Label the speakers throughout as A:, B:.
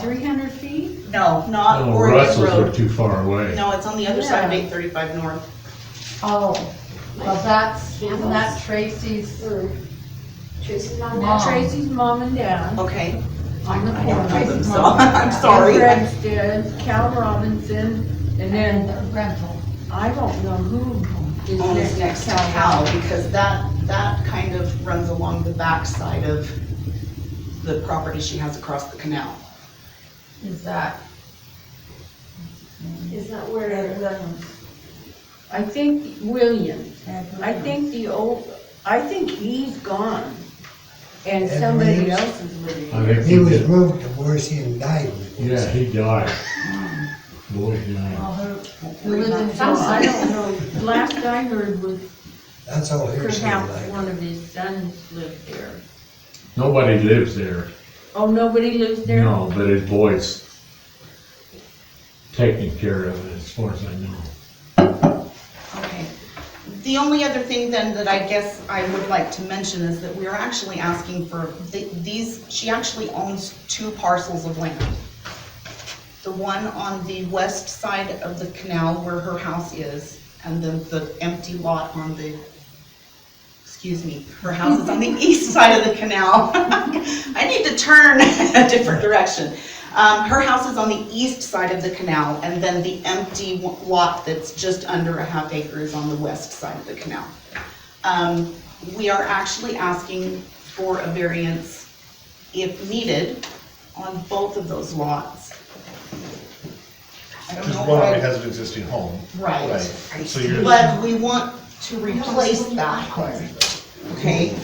A: three hundred feet?
B: No, not
C: No,
B: Uh, Oregon
C: Russell's are
B: Road.
C: too far away.
B: No, it's on the other side of
D: Yeah.
B: eight thirty-five north.
D: Oh, well, that's, isn't that Tracy's
E: Tracy's mom.
D: mom?
A: Tracy's
D: mom and dad.
B: Okay.
D: On the
B: I don't know
D: corner.
B: them, so I'm sorry.
D: Greg's did, Cal Robinson, and
A: And
D: then
A: the rental.
D: I don't know who is
B: Owns
D: next.
B: next to Cal, because that, that kind of runs along the backside of the property she has across the canal.
D: Is that?
E: Is that where,
D: I think Williams. I think the old, I think he's gone. And
F: Ed
D: somebody
F: Williams?
D: else is living.
C: I think
F: He
C: he
F: was
C: did,
F: moved to Morrison died.
C: yeah, he died. Boy, he died.
D: Who lives in Tulsa, I don't know. Last I heard was
F: That's all hearsay.
D: perhaps
F: like.
D: one of his sons lived there.
C: Nobody lives there,
D: Oh, nobody lives there?
C: no, but his boy's taking care of it, as far as I know.
B: Okay. The only other thing then that I guess I would like to mention is that we are actually asking for th- these, she actually owns two parcels of land. The one on the west side of the canal where her house is, and then the empty lot on the, excuse me, her house is on the east side of the canal. I need to turn a different direction. Um, her house is on the east side of the canal, and then the empty w- lot that's just under a half acre is on the west side of the canal. Um, we are actually asking for a variance, if needed, on both of those lots. I don't know
G: Because
B: if
G: one
B: I-
G: already has an existing home.
B: Right.
G: So you're,
B: But we want to replace that, okay?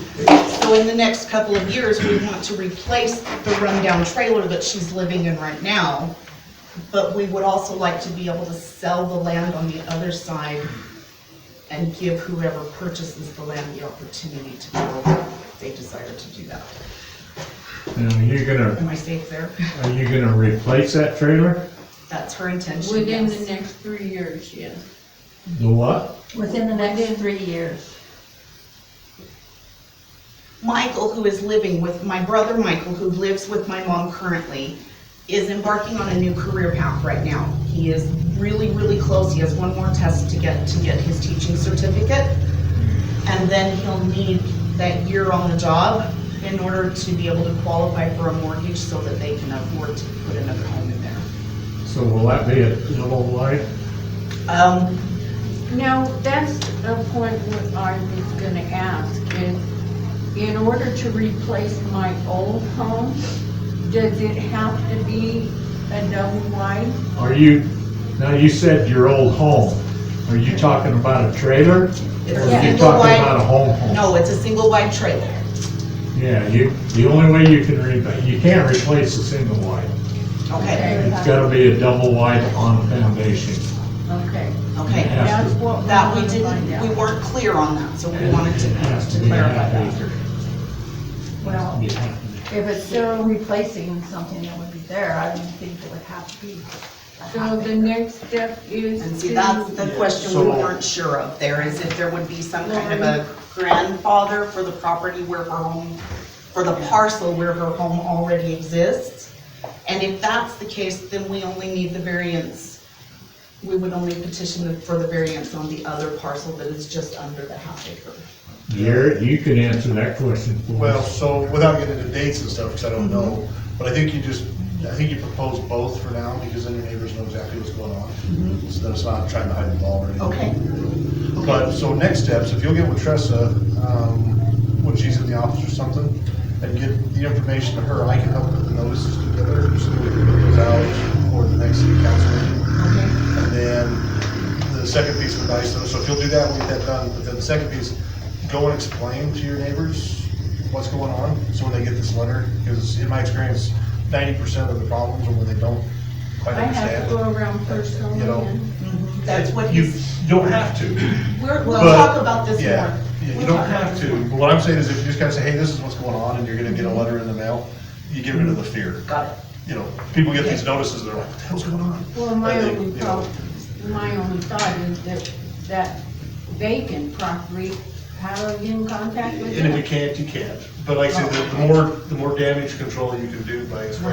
B: So in the next couple of years, we want to replace the rundown trailer that she's living in right now. But we would also like to be able to sell the land on the other side and give whoever purchases the land the opportunity to build if they desire to do that.
C: And are you gonna,
B: Am I safe there?
C: are you gonna replace that trailer?
B: That's her intention,
D: Within the
B: yes.
D: next three years, yes.
C: The what?
A: Within the next three years.
B: Michael, who is living with, my brother Michael, who lives with my mom currently, is embarking on a new career path right now. He is really, really close. He has one more test to get, to get his teaching certificate. And then he'll need that year on the job in order to be able to qualify for a mortgage so that they can afford to put another home in there.
C: So will that be a double wide?
B: Um,
D: Now, that's a point what I was gonna ask, is in order to replace my old home, does it have to be a double wide?
C: Are you, now you said your old home, are you talking about a trailer?
B: It's a
C: Or are you
B: single
C: talking
B: wide-
C: about a home home?
B: no, it's a single wide trailer.
C: Yeah, you, the only way you can re, you can't replace a single wide.
B: Okay,
C: It's gotta be a double wide on foundation.
D: Okay,
B: okay.
C: Yeah.
D: that's what we
B: That we
D: wanna find
B: didn't,
D: out.
B: we weren't clear on that, so we
C: And
B: wanted to
C: it has
B: to
C: be
B: clarify
C: half
B: that.
C: acre.
A: Well,
C: Be half acre.
A: if it's still replacing something that would be there, I don't think it would have to be. a half
D: So the
A: acre.
D: next step is
B: And see, that's
D: to,
B: the question we weren't sure of there, is if there would be some kind of a grandfather for the property where her home, for the parcel where her home already exists. And if that's the case, then we only need the variance, we would only petition for the variance on the other parcel that is just under the half acre.
C: Garrett, you can answer that question for
G: well,
C: us.
G: so without getting into dates and stuff, because I don't know, but I think you just, I think you propose both for now, because then your neighbors know exactly what's going on. So that's not trying to hide the ball or anything.
B: Okay.
G: But, so next steps, if you'll get with Tressa, um, when she's in the office or something, and get the information to her, I can help put the notices together, so we can get those out for the next city council meeting. And then the second piece of advice, though, so if you'll do that, we'll get that done, but then the second piece, go and explain to your neighbors what's going on, so when they get this letter, because in my experience, ninety percent of the problems are when they don't
D: I
G: quite
D: have to
G: understand.
D: go around personally
G: You know,
D: and.
B: That's what
G: You,
B: he's,
G: you don't have to,
B: we're, we'll
G: But-
B: talk about this more.
G: yeah, yeah, you
B: We'll
G: don't
B: talk about
G: have
B: this
G: to,
B: more.
G: but what I'm saying is if you just kind of say, hey, this is what's going on, and you're gonna get a letter in the mail, you get rid of the fear.
B: Got it.
G: You know, people get these notices, they're like, what the hell's going on?
D: Well, my
G: And they-
D: only
G: you know,
D: thought, my only thought is that, that vacant property, how are you in contact with
G: And if you
D: it?
G: can't, you can't, but like I said, the- the more, the more damage control you can do by explaining